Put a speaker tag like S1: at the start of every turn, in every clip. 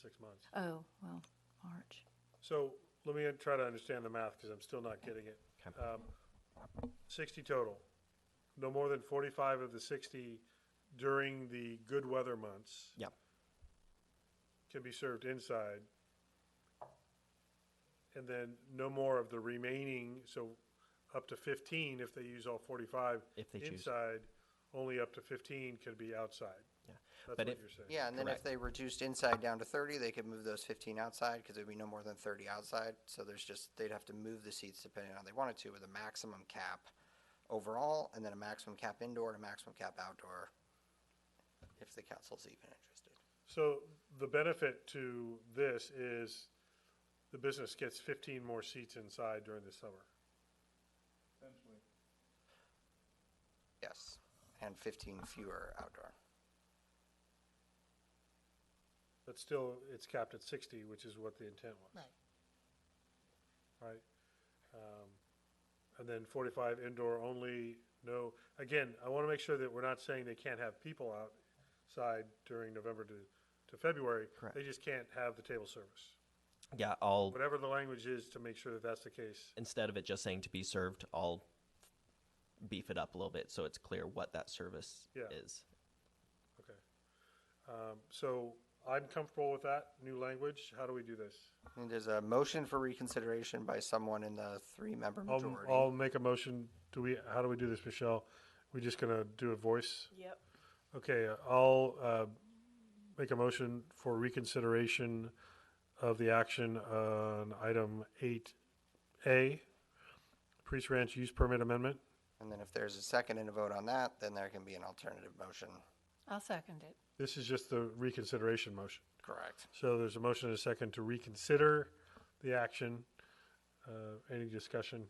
S1: six months.
S2: Oh, well, March.
S1: So let me try to understand the math, because I'm still not getting it. Um, Sixty total, no more than forty-five of the sixty during the good weather months
S3: Yep.
S1: can be served inside. And then no more of the remaining, so up to fifteen if they use all forty-five.
S3: If they choose.
S1: Inside, only up to fifteen can be outside.
S3: Yeah.
S1: That's
S3: But
S1: what
S3: if-
S1: you're saying.
S4: Yeah, and then
S3: Correct.
S4: if they reduced inside down to thirty, they could move those fifteen outside, because there'd be no more than thirty outside. So there's just, they'd have to move the seats depending on how they wanted to, with a maximum cap overall, and then a maximum cap indoor and a maximum cap outdoor, if the council's even interested.
S1: So the benefit to this is the business gets fifteen more seats inside during the summer.
S4: Yes, and fifteen fewer outdoor.
S1: But still, it's capped at sixty, which is what the intent was,
S5: Right.
S1: right? Um, And then forty-five indoor only, no, again, I want to make sure that we're not saying they can't have people outside during November to, to February.
S3: Correct.
S1: They just can't have the table service.
S3: Yeah, all
S1: Whatever the language is to make sure that that's the case.
S3: instead of it just saying to be served, I'll beef it up a little bit so it's clear what that service
S1: Yeah.
S3: is.
S1: Okay. Um, So I'm comfortable with that new language. How do we do this?
S4: And there's a motion for reconsideration by someone in the three-member
S1: I'll,
S4: majority.
S1: I'll make a motion. Do we, how do we do this, Michelle? We just gonna do a voice?
S2: Yep.
S1: Okay, I'll, uh, make a motion for reconsideration of the action on item eight A, Priest Ranch Use Permit Amendment.
S4: And then if there's a second and a vote on that, then there can be an alternative motion.
S2: I'll second it.
S1: This is just the reconsideration motion.
S4: Correct.
S1: So there's a motion and a second to reconsider the action. Uh, Any discussion?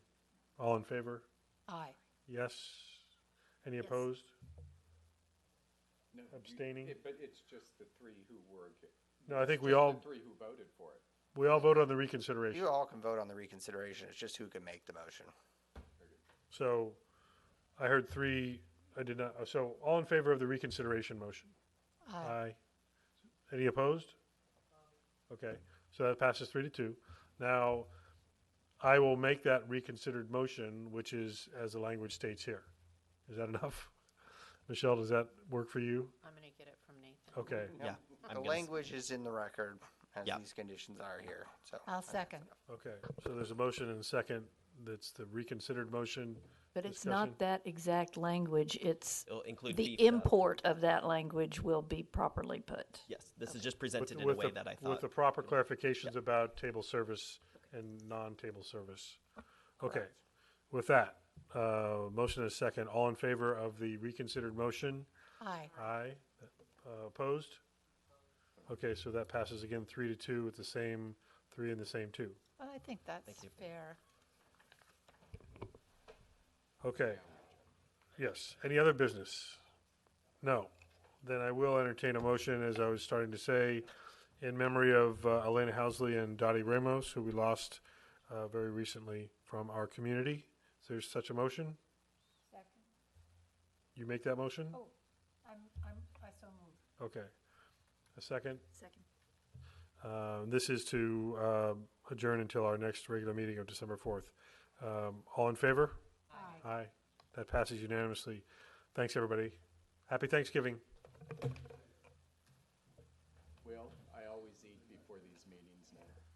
S1: All in favor?
S2: Aye.
S1: Yes? Any opposed? Abstaining?
S6: But it's just the three who were. ag-
S1: No, I think we
S6: just the
S1: all,
S6: Three who voted for it.
S1: we all vote on the reconsideration.
S4: You all can vote on the reconsideration, it's just who can make the motion.
S1: So I heard three, I did not, so all in favor of the reconsideration motion?
S2: Aye.
S1: Aye. Any opposed? Okay, so that passes three to two. Now, I will make that reconsidered motion, which is as the language states here. Is that enough? Michelle, does that work for you?
S7: I'm gonna get it from Nathan.
S1: Okay,
S3: Yeah. I'm
S4: The
S3: gonna s-
S4: language is in the record as
S3: Yeah.
S4: these conditions are here, so.
S2: I'll second.
S1: okay. So there's a motion and a second. That's the reconsidered motion.
S2: But it's
S1: Discussion.
S2: not that exact language, it's
S3: It'll include
S2: the
S3: beefed up.
S2: import of that language will be properly put.
S3: Yes, this is just
S1: with-
S3: presented in a
S1: with
S3: way
S1: the-
S3: that I
S1: With
S3: thought.
S1: the proper clarifications about table service and non-table service. Okay, with that, uh, motion is second. All in favor of the reconsidered motion?
S2: Aye.
S1: Aye. Uh, Opposed? Okay, so that passes again, three to two with the same, three and the same two.
S7: Well, I think that's
S3: you.
S7: fair.
S1: Okay. Yes. Any other business? No. Then I will entertain a motion, as I was starting to say, in memory of uh, Elena Housley and Dottie Ramos, who we lost uh, very recently from our community. Is there such a motion? You make that motion?
S2: I'm, I'm, I so moved.
S1: Okay. A second?
S2: Second.
S1: Uh, This is to uh, adjourn until our next regular meeting of December 4th. Um, All in favor? Aye. Aye. That passes unanimously. Thanks, everybody. Happy Thanksgiving.
S6: Well, I always eat before these meetings now.